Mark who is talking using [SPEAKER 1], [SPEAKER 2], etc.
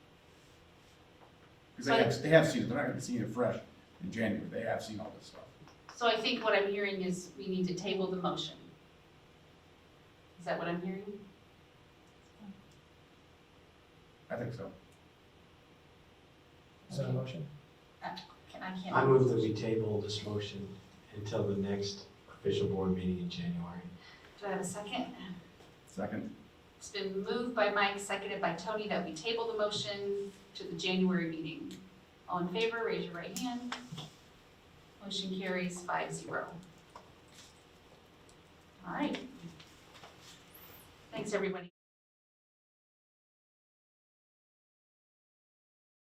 [SPEAKER 1] Because they have, they have seen it, they're not gonna be seeing it fresh in January, they have seen all this stuff.
[SPEAKER 2] So I think what I'm hearing is we need to table the motion. Is that what I'm hearing?
[SPEAKER 1] I think so.
[SPEAKER 3] Is that a motion?
[SPEAKER 2] Can I
[SPEAKER 4] I
[SPEAKER 2] can't,
[SPEAKER 4] move that we table this motion until the next official board meeting in January.
[SPEAKER 2] do I have a second?
[SPEAKER 1] Second,
[SPEAKER 2] It's been moved by Mike, seconded by Tony, that we table the motion to the January meeting. All in favor, raise your right hand. Motion carries five zero. All right. Thanks, everybody.